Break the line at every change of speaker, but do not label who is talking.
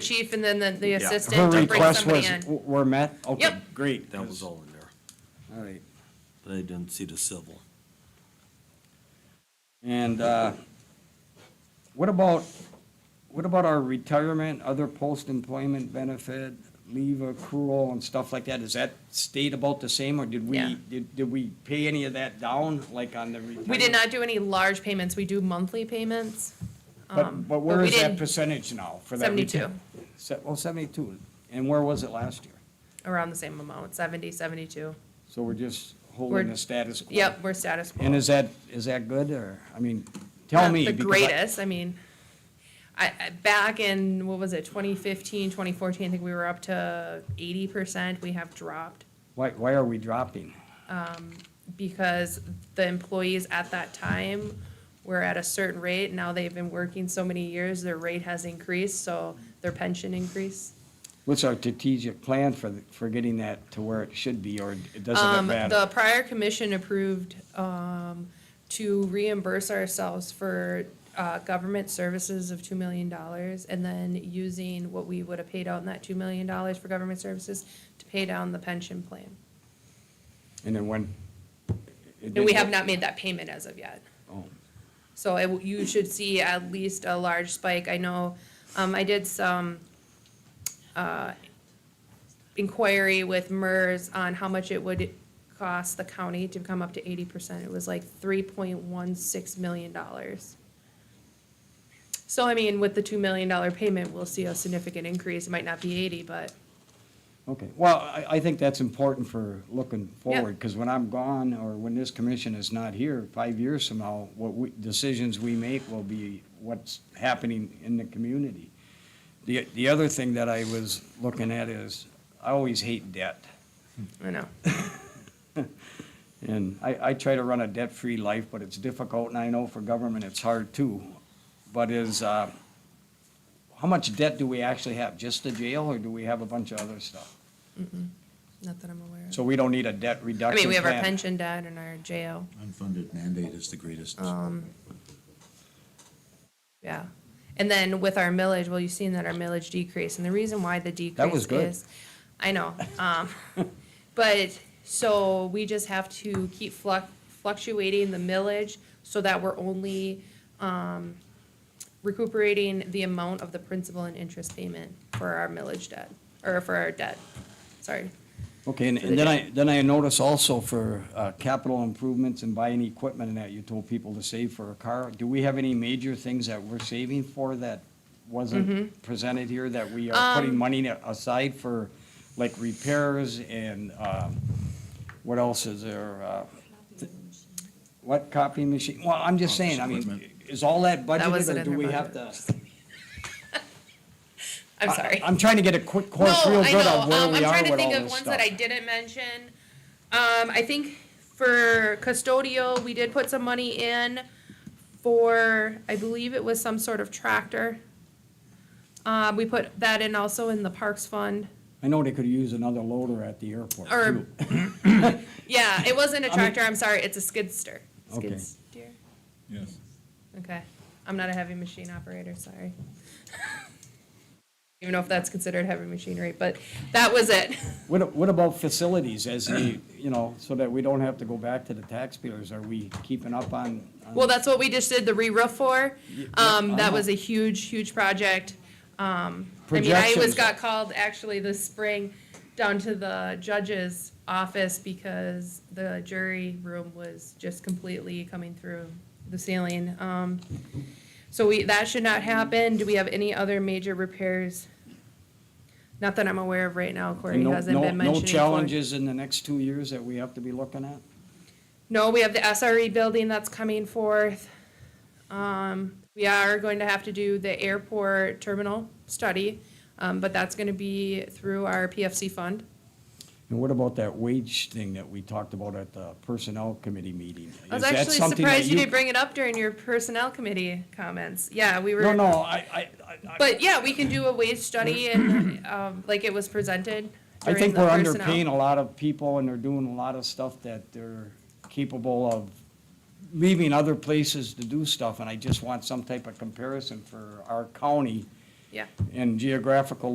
chief and then the, the
Her
assistant to bring
requests
somebody
was,
in.
w- were met? Okay,
Yep.
great.
That was all in there.
All right.
They didn't see the civil.
And uh, what about, what about our retirement, other post-employment benefit, leave accrual and stuff like that? Is that stayed about the same, or did we,
Yeah.
did did we pay any of that down, like on the retirement?
We did not do any large payments. We do monthly payments. um,
But, but where
we
is that
did
percentage now for that?
Seventy-two,
reti- Se- Well, seventy-two, and where was it last year?
around the same amount, 70, 72.
So we're just
We're-
holding the status quo?
Yep, we're status quo.
And is that, is that good, or, I mean, tell
Not
me.
The
because I-
greatest, I mean, I, I, back in, what was it, 2015, 2014, I think we were up to 80%. We have dropped
Why, why are we dropping?
because the employees at that time were at a certain rate. Now they've been working so many years, their rate has increased, so their pension increased.
What's our strategic plan for, the- for getting that to where it should be, or it doesn't
Um, the
matter?
prior commission approved, um, to reimburse ourselves for, uh, government services of two million dollars and then using what we would have paid out in that two million dollars for government services to pay down the pension plan.
And then when?
And we have not made that payment as of yet.
Oh,
So it, w- you should see at least a large spike. I know, um, I did some, uh, inquiry with MERS on how much it would cost the county to come up to eighty percent. It was like three point one six million dollars. So I mean, with the two million dollar payment, we'll see a significant increase. It might not be eighty, but
Okay, well, I, I think that's important for looking
Yeah.
forward, because when I'm gone, or when this commission is not here, five years from now, what we, decisions we make will be what's happening in the community. The, the other thing that I was looking at is, I always hate debt.
I know.
And I, I try to run a debt-free life, but it's difficult, and I know for government, it's hard too. But is, uh, how much debt do we actually have? Just the jail, or do we have a bunch of other stuff?
Not that I'm aware of.
So we don't need a debt
I
reduction
mean, we have our
plan.
pension debt and our jail.
Unfunded mandate is the greatest.
Uh,
Yeah. And then with our millage, well, you've seen that our millage decreased, and the reason why the decrease
was good.
is, I know, um, but so we just have to keep fluc- fluctuating the millage so that we're only um, recuperating the amount of the principal and interest payment for our millage debt or for our debt. Sorry.
Okay, and and then I, then I notice also for uh, capital improvements and buying equipment and that, you told people to save for a car. Do we have any major things that we're saving for that
Mm-hmm.
wasn't presented here, that we are
Um,
putting money aside for, like repairs and um, what else is there? uh, What copy machine? Well, I'm just saying, I mean,
equipment.
is all that budgeted
wasn't
or
in
do
her
we have to?
budget. I'm sorry.
I- I'm trying to get a quick course real good on where
um,
we
I'm
are
trying to
with
think
all
of
this
ones that I
stuff.
didn't mention. Um, I think for custodial, we did put some money in for, I believe it was some sort of tractor. Um, we put that in also in the parks fund,
I know they could use another loader at the airport
or,
too.
yeah, it wasn't a tractor, I'm sorry, it's a skidster.
Okay.
Skid steer?
Yes.
Okay, I'm not a heavy machine operator, sorry. Even know if that's considered heavy machinery, but that was it.
What, what about facilities as the, you know, so that we don't have to go back to the taxpayers? Are we keeping up on? on-
Um, Well, that's what we just did the re-roof for. Um,
I
that
know.
was a huge, huge project. Um, I mean, I was,
Projections.
got called actually this spring down to the judge's office because the jury room was just completely coming through the ceiling. Um, so we, that should not happen. Do we have any other major repairs? Not that I'm aware of right now, Corey
And no-
hasn't
no-
been mentioning.
No
Floyd.
challenges in the next two years that we have to be looking at?
No, we have the SRE building that's coming forth. Um, we are going to have to do the airport terminal study, um, but that's gonna be through our PFC fund.
And what about that wage thing that we talked about at the personnel committee meeting?
I was
Is that
actually
something that
surprised you didn't bring it up during your personnel committee comments. Yeah, we were.
No, no, I, I, I- I,
But yeah, we can do a wage study and, um, like it was presented during
I
the
think we're
personnel.
underpaying a lot of people and they're doing a lot of stuff that they're capable of leaving other places to do stuff. And I just want some type of comparison for our county
yeah.
And geographical